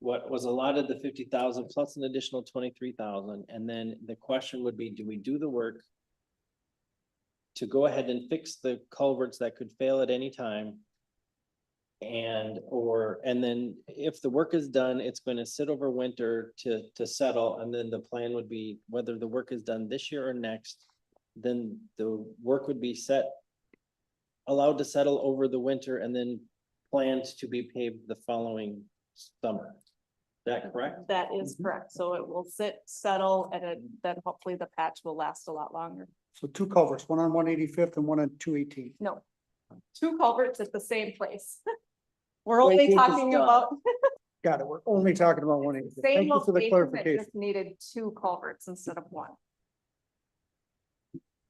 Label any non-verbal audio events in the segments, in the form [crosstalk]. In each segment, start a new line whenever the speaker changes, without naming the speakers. what was allotted the fifty thousand plus an additional twenty-three thousand, and then the question would be, do we do the work? To go ahead and fix the culverts that could fail at any time? And, or, and then if the work is done, it's gonna sit over winter to, to settle, and then the plan would be whether the work is done this year or next. Then the work would be set. Allowed to settle over the winter and then planned to be paved the following summer. Is that correct?
That is
Mhm.
correct. So it will sit, settle, and it- then hopefully the patch will last a lot longer.
So two culverts, one on one eighty-fifth and one on two eighteen.
No. Two culverts at the same place. [laughs] We're
Wait till
only
it's
talking
done.
about
Got it. We're only talking about one eighty-fifth.
same
Thank you for the
location that
clarification.
just needed two culverts instead of one.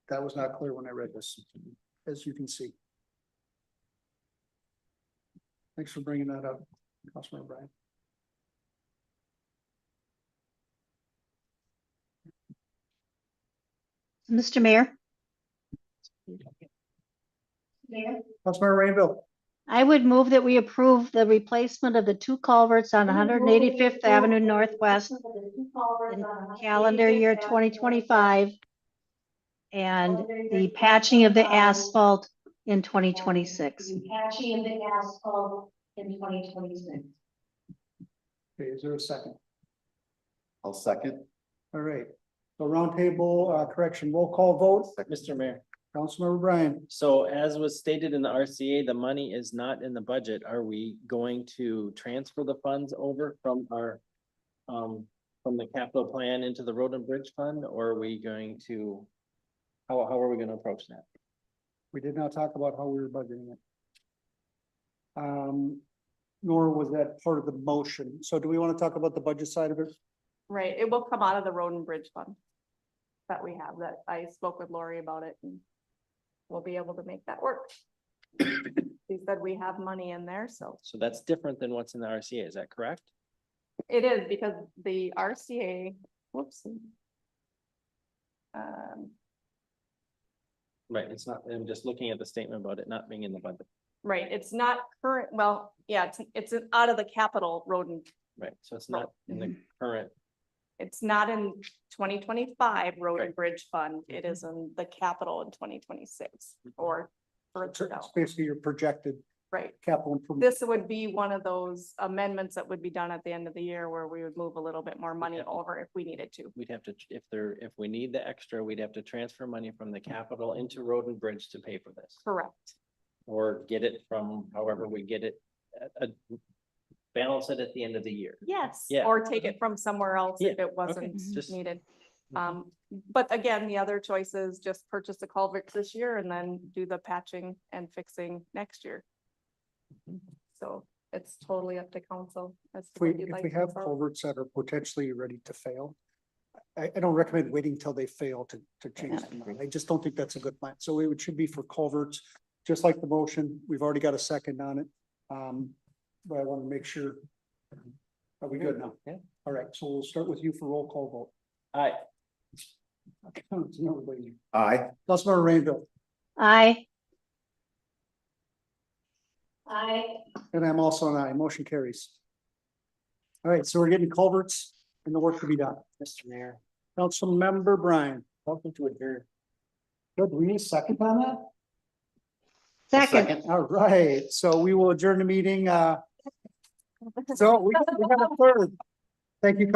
That was not clear when I read this, as you can see. Thanks for bringing that up, Councilmember Brian.
Mr. Mayor?
Councilmember Rainville,
I would move that we approve the replacement of the two culverts on one hundred and eighty-fifth Avenue Northwest in calendar year twenty twenty-five and the patching of the asphalt in twenty twenty-six.
Patching of the asphalt in twenty twenty-six.
okay, is there a second?
I'll second.
All right, so roundtable, uh, correction, roll call vote,
Mr. Mayor,
Councilmember Brian.
so as was stated in the RCA, the money is not in the budget. Are we going to transfer the funds over from our um, from the capital plan into the road and bridge fund, or are we going to how, how are we gonna approach that?
We did not talk about how we were budgeting it. Um, nor was that part of the motion. So do we want to talk about the budget side of it?
Right, it will come out of the road and bridge fund. That we have, that I spoke with Lori about it and we'll be able to make that
[coughs]
work. She said we have money in there, so
So that's different than what's in the RCA, is that correct?
it is because the RCA, whoops. Um,
Right, it's not, I'm just looking at the statement about it not being in the budget.
right, it's not current, well, yeah, it's, it's an- out of the capital road and
Right, so it's not in the current,
it's not in twenty twenty-five road and bridge fund. It is in the capital in twenty twenty-six or further down,
It's basically your projected
right?
capital improvement.
this would be one of those amendments that would be done at the end of the year where we would move a little bit more money
Yeah.
over if we needed to.
we'd have to, if there, if we need the extra, we'd have to transfer money from the capital into road and bridge to pay for this.
Correct.
Or get it from however we get it, uh, uh, balance it at the end of the year.
Yes.
Yeah.
Or take it from somewhere else if it wasn't
Just- Mm-hmm.
needed. Um, but again, the other choice is just purchase the culverts this year and then do the patching and fixing next year.
Mm-hmm.
So it's totally up to council as to
If we,
what you'd
if
like.
we
to
have
do.
culverts that are potentially ready to fail, I, I don't recommend waiting till they fail to, to change them. I just don't think that's a good plan. So it should be for culverts, just like the motion. We've already got a second on it. Um, but I want to make sure. Are we good now?
Yeah.
All right, so we'll start with you for roll call vote.
Aye.
It's another way.
Aye.
Councilmember Rainville,
Aye.
I,
and I'm also an aye. Motion carries. All right, so we're getting culverts and the work to be done.
Mr. Mayor,
Councilmember Brian,
welcome to adjourn.
good, we need a second on that?
Second.
All right, so we will adjourn the meeting, uh. So we we have a third. Thank you, Council.